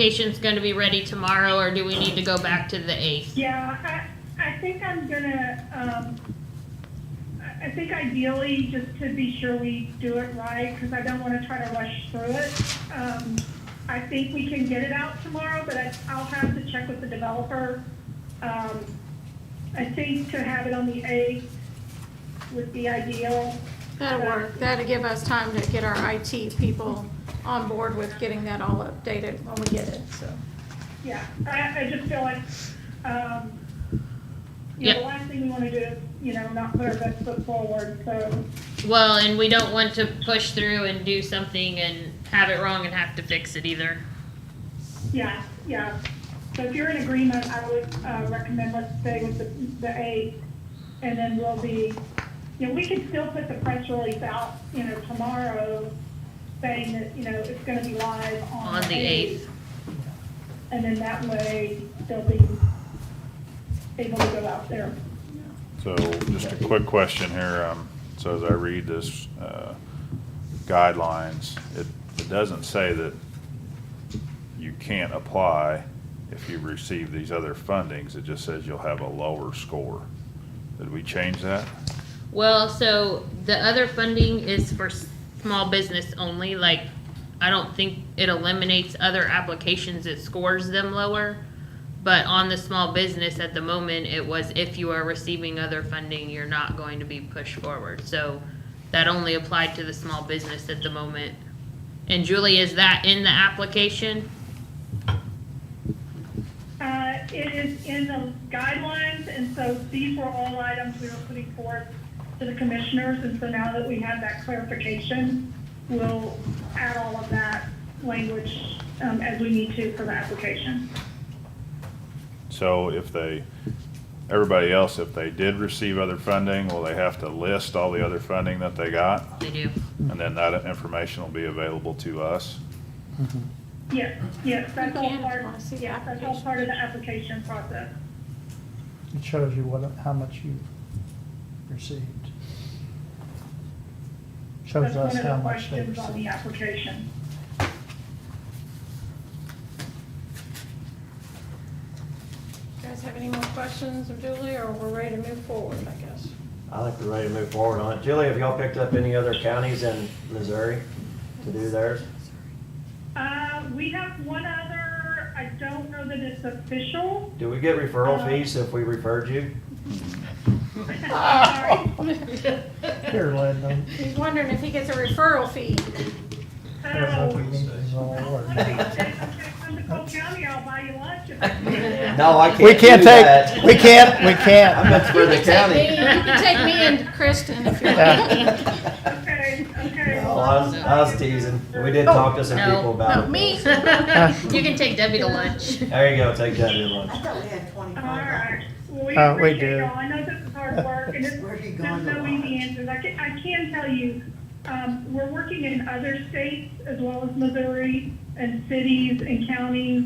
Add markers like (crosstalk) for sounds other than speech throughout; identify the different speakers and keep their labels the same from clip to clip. Speaker 1: application's gonna be ready tomorrow, or do we need to go back to the eighth?
Speaker 2: Yeah, I, I think I'm gonna, um, I, I think ideally, just to be sure we do it right, because I don't wanna try to rush through it. Um, I think we can get it out tomorrow, but I, I'll have to check with the developer. Um, I think to have it on the eighth would be ideal.
Speaker 3: That'll work. That'll give us time to get our IT people on board with getting that all updated when we get it, so.
Speaker 2: Yeah, I, I just feel like, um, you know, the last thing we wanna do is, you know, not put our best foot forward, so,
Speaker 1: Well, and we don't want to push through and do something and have it wrong and have to fix it either.
Speaker 2: yeah, yeah. So if you're in agreement, I would, uh, recommend let's stay with the, the eight, and then we'll be, you know, we can still put the press release out, you know, tomorrow, saying that, you know, it's gonna be live on.
Speaker 1: On the 8th.
Speaker 2: And then that way, they'll be able to go out there.
Speaker 4: So just a quick question here, um, so as I read this, uh, guidelines, it, it doesn't say that you can't apply if you receive these other fundings, it just says you'll have a lower score. Did we change that?
Speaker 1: Well, so the other funding is for s- small business only, like, I don't think it eliminates other applications, it scores them lower. But on the small business at the moment, it was if you are receiving other funding, you're not going to be pushed forward, so that only applied to the small business at the moment. And Julie, is that in the application?
Speaker 2: Uh, It is in the guidelines, and so these were all items we were putting forth to the commissioners. And so now that we have that clarification, we'll add all of that language um, as we need to for the application.
Speaker 4: So if they, everybody else, if they did receive other funding, will they have to list all the other funding that they got?
Speaker 1: They do.
Speaker 4: And then that information will be available to us?
Speaker 2: Yes, yes, that's all
Speaker 3: Again,
Speaker 2: part,
Speaker 3: I see the
Speaker 2: yes, that's all
Speaker 3: application.
Speaker 2: part of the application process.
Speaker 5: It shows you what, how much you received. Shows
Speaker 2: That's one
Speaker 5: us
Speaker 2: of
Speaker 5: how
Speaker 2: the
Speaker 5: much they
Speaker 2: questions on the
Speaker 5: received.
Speaker 2: application.
Speaker 3: You guys have any more questions of Julie, or we're ready to move forward, I guess?
Speaker 6: I think we're ready to move forward on it. Julie, have y'all picked up any other counties in Missouri to do theirs?
Speaker 2: Uh, We have one other, I don't know that it's official. (laughs)
Speaker 6: Do we get
Speaker 3: Uh,
Speaker 6: referral fees if we
Speaker 3: (laughs)
Speaker 6: referred you?
Speaker 2: Sorry.
Speaker 5: Here, Lynn,
Speaker 3: He's wondering if he gets a referral fee.
Speaker 5: there's
Speaker 2: Oh.
Speaker 5: nothing needs all over.
Speaker 6: No, I
Speaker 2: (laughs)
Speaker 6: can't
Speaker 7: We can't
Speaker 6: do
Speaker 7: take,
Speaker 6: that.
Speaker 7: we can't, we
Speaker 6: (laughs) I
Speaker 7: can't.
Speaker 6: meant for the
Speaker 3: You (laughs)
Speaker 6: county.
Speaker 3: can take me and Kristen if you want.
Speaker 2: Okay, okay.
Speaker 6: No, I was, I was teasing. We did talk to some
Speaker 1: No.
Speaker 6: people about
Speaker 3: Oh, No,
Speaker 6: it.
Speaker 3: me,
Speaker 1: (laughs) You can take Debbie to lunch.
Speaker 6: There you go, take that in lunch.
Speaker 8: I thought Oh, we had twenty-five.
Speaker 2: Alright, well, we
Speaker 5: Uh, we
Speaker 2: appreciate
Speaker 5: do.
Speaker 2: y'all, I know this is hard work, and it's,
Speaker 8: Where are you
Speaker 2: there's
Speaker 8: going
Speaker 2: no
Speaker 8: to
Speaker 2: easy
Speaker 8: lunch?
Speaker 2: answers, I can, I can tell you, um, we're working in other states as well as Missouri, and cities and counties,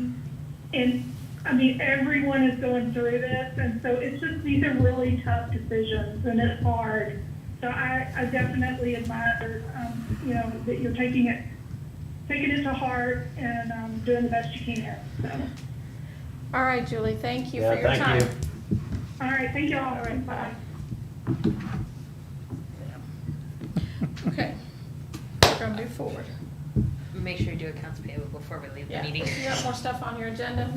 Speaker 2: and, I mean, everyone is going through this, and so it's just, these are really tough decisions, and it's hard. So I, I definitely admire, um, you know, that you're taking it, taking it to heart and, um, doing the best you can, so.
Speaker 3: all right, Julie, thank you for
Speaker 6: Yeah,
Speaker 3: your time.
Speaker 6: thank you.
Speaker 2: All right, thank you all.
Speaker 3: Bye. Okay, gonna move forward.
Speaker 1: Make sure you do accounts payable before we leave the
Speaker 3: Yeah,
Speaker 1: meeting.
Speaker 3: you got more stuff on your (laughs) agenda?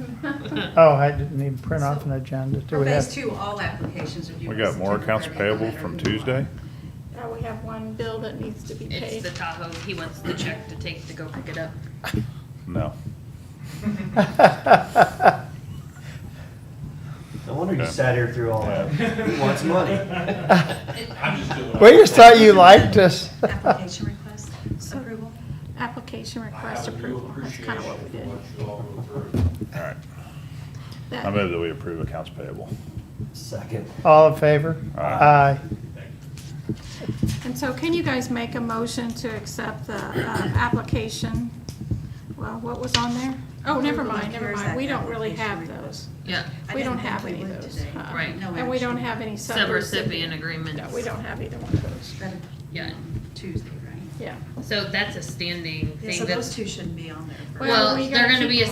Speaker 5: Oh, I didn't even print off an agenda. Do
Speaker 8: For
Speaker 5: we
Speaker 8: phase
Speaker 5: have,
Speaker 8: two, all applications are due.
Speaker 4: We
Speaker 8: by
Speaker 4: got more
Speaker 8: September
Speaker 4: accounts
Speaker 8: 30th, no
Speaker 4: payable
Speaker 8: matter
Speaker 4: from
Speaker 8: who you are.
Speaker 4: Tuesday?
Speaker 3: Uh, we have one bill that needs to be
Speaker 1: It's
Speaker 3: paid.
Speaker 1: the Tahoe, he wants the check to take to go pick it up.
Speaker 4: No.
Speaker 6: No wonder you
Speaker 4: Okay.
Speaker 6: sat here through all that. Who wants money?
Speaker 5: (laughs) we just thought you
Speaker 2: (laughs)
Speaker 5: liked us.
Speaker 8: Application request approval?
Speaker 3: Application request approval, that's kind of what we did.
Speaker 4: All right. I
Speaker 3: That-
Speaker 4: move that we approve accounts payable.
Speaker 6: Second.
Speaker 5: All in favor?
Speaker 4: Aye.
Speaker 5: Aye.
Speaker 3: And so can you guys make a motion to accept the, uh, application? Well, what was on there? Oh, never mind, never mind, we don't really have those.
Speaker 1: Yeah,
Speaker 8: I
Speaker 3: We
Speaker 8: didn't
Speaker 3: don't
Speaker 8: think
Speaker 3: have
Speaker 8: we
Speaker 3: any of
Speaker 8: would
Speaker 3: those.
Speaker 8: today.
Speaker 3: uh-uh.
Speaker 1: Right.
Speaker 8: No
Speaker 3: And we don't
Speaker 8: action.
Speaker 3: have any
Speaker 1: sub-recipient
Speaker 3: sub-recipient.
Speaker 1: agreements.
Speaker 3: No, we don't have either one of those,
Speaker 8: That'd
Speaker 1: Yeah,
Speaker 8: be Tuesday, right?
Speaker 3: yeah.
Speaker 1: so that's a standing
Speaker 8: Yeah,
Speaker 1: thing
Speaker 8: so
Speaker 1: that's,
Speaker 8: those two shouldn't be on there.
Speaker 3: Well,
Speaker 1: well,
Speaker 3: we
Speaker 1: they're
Speaker 3: gotta
Speaker 1: gonna
Speaker 3: keep
Speaker 1: be a